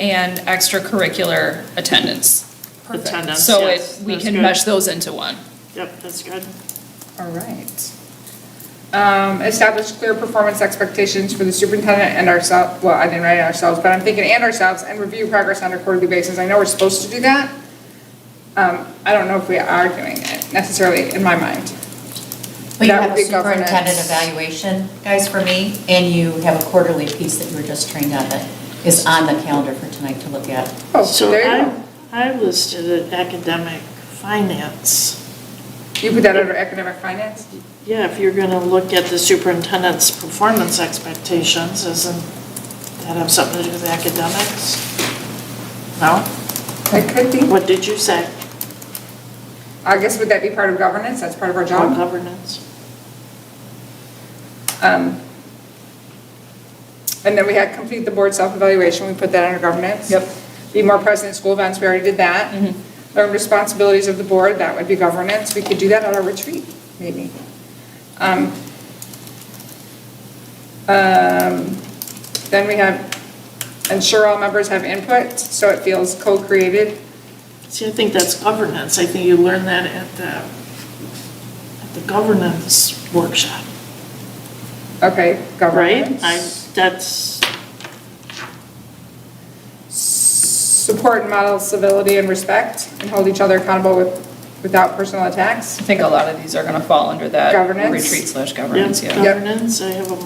and extracurricular attendance. Attendance, So it, yes, we that's can good. mesh those into one. Yep, that's good. All right. Um, Establish clear performance expectations for the superintendent and ourselves, well, I didn't write ourselves, but I'm thinking and ourselves, and review progress on a quarterly basis. I know we're supposed to do that. Um, I don't know if we are doing it necessarily in my mind. Well, you That have would a be governance. superintendent evaluation, guys, for me, and you have a quarterly piece that you were just trained on that is on the calendar for tonight to look at. Oh, So there you I- go. I listed it academic finance. You put that under academic finance? Yeah, if you're gonna look at the superintendent's performance expectations, isn't that have something to do with academics? No? It could be. What did you say? I guess would that be part of governance? That's part of our Or job? governance? Um, And then we had complete the board self-evaluation, we put that under governance. Yep. Be more present in school events, we already did that. Mm-hmm. Learn responsibilities of the board, that would be governance, we could do that at our retreat, maybe. Um, um, Then we have ensure all members have input, so it feels co-created. See, I think that's governance. I think you learned that at the, at the governance workshop, Okay, right? governance. I, that's, Support and model civility and respect, and hold each other accountable with, without personal attacks. I think a lot of these are gonna fall under that Governance. retreat slash governance, yeah, yeah. governance, I have a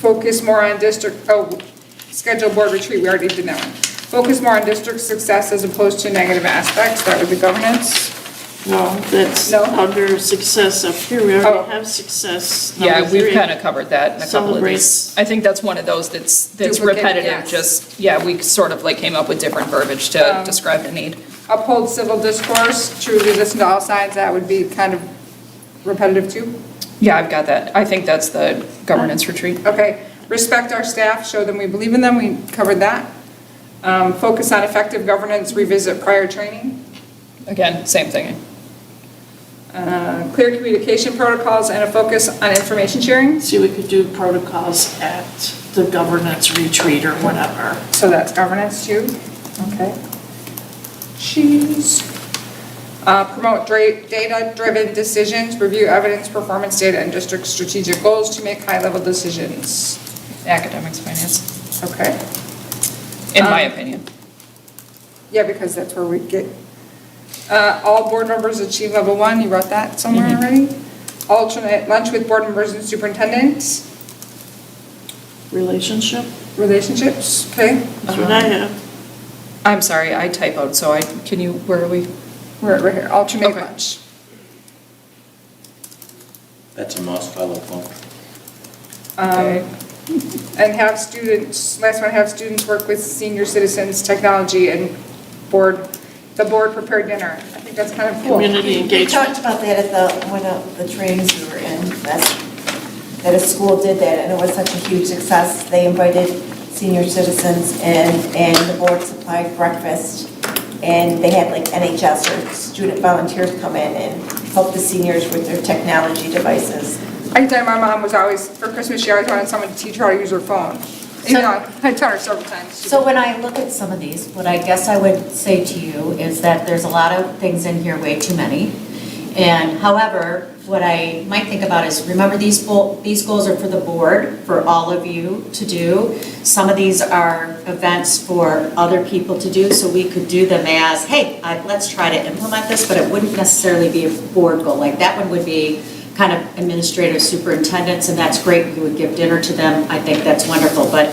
Focus more on district, oh, schedule board retreat, we already did that one. Focus more on district success as opposed to negative aspects, that would be governance. No, that's No? under success up here, we Oh. already have success. Yeah, number we've three. kind of covered that in a couple of these. Celebrates. I think that's one of those that's, that's Duplicate, repetitive, yes. Um, just, yeah, we sort of like came up with different verbiage to describe the need. Uphold civil discourse, truly listen to all sides, that would be kind of repetitive too. Yeah, I've got that. I think that's the governance retreat. Okay, respect our staff, show them we believe in them, we covered that. Um, Focus on effective governance, revisit prior training. Again, same thing. Uh, Clear communication protocols and a focus on information sharing, See, we could do protocols at the governance retreat or whatever. so that's governance too. Okay. Cheese. Uh, Promote dra- data-driven decisions, review evidence, performance data, and district strategic goals to make high-level decisions. Academics, finance, Okay, in my Um, opinion. yeah, because that's where we get, uh, all board members achieve level one, you wrote that somewhere Mm-hmm. already? Alternate lunch with board members and superintendents, Relationship, relationships, okay? Uh-huh. that's what I have. I'm sorry, I typoed, so I, can you, where are we? We're, we're here, alternate Okay. lunch. That's a must, I love lunch. Um, And have students, last one, have students work with senior citizens, technology, and board, the board prepared dinner. I think that's kind of cool. Community We engagement. talked about that at the, one of the trainings we were in, that's, that a school did that, and it was such a huge success. They invited senior citizens and, and the board supplied breakfast, and they had like NHS or student volunteers come in and help the seniors with their technology devices. I can tell you, my mom was always, for Christmas, she always wanted someone to teach her how to use her phone. You So- know, I taught her several times. She So when I look at some of these, what I guess I would say to you is that there's a lot of things in here, way too many. And however, what I might think about is, remember these, bo- these goals are for the board, for all of you to do. Some of these are events for other people to do, so we could do them as, hey, I- let's try to implement this, but it wouldn't necessarily be a board goal. Like that one would be kind of administrative superintendents, and that's great, we would give dinner to them. I think that's wonderful, but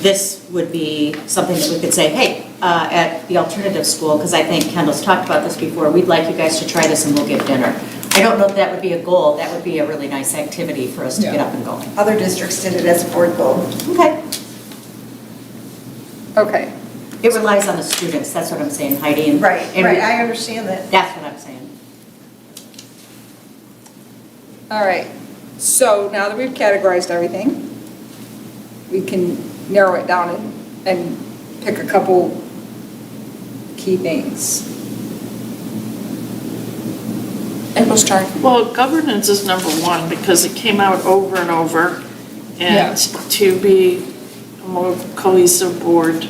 this would be something that we could say, hey, uh, at the alternative school, because I think Kendall's talked about this before, we'd like you guys to try this and we'll give dinner. I don't know if that would be a goal, that would be a really nice activity for us to get Yeah. up and going. Other districts did it as a board goal. Okay. did. Okay. It relies on the students, that's what I'm saying, Heidi. and- and we- understand that. That's what I'm saying. All right, so now that we've categorized everything, we can narrow it down and, and pick a couple key things. April's turn. Well, governance is number one because it came out over and over. Yeah. And to be more cohesive board.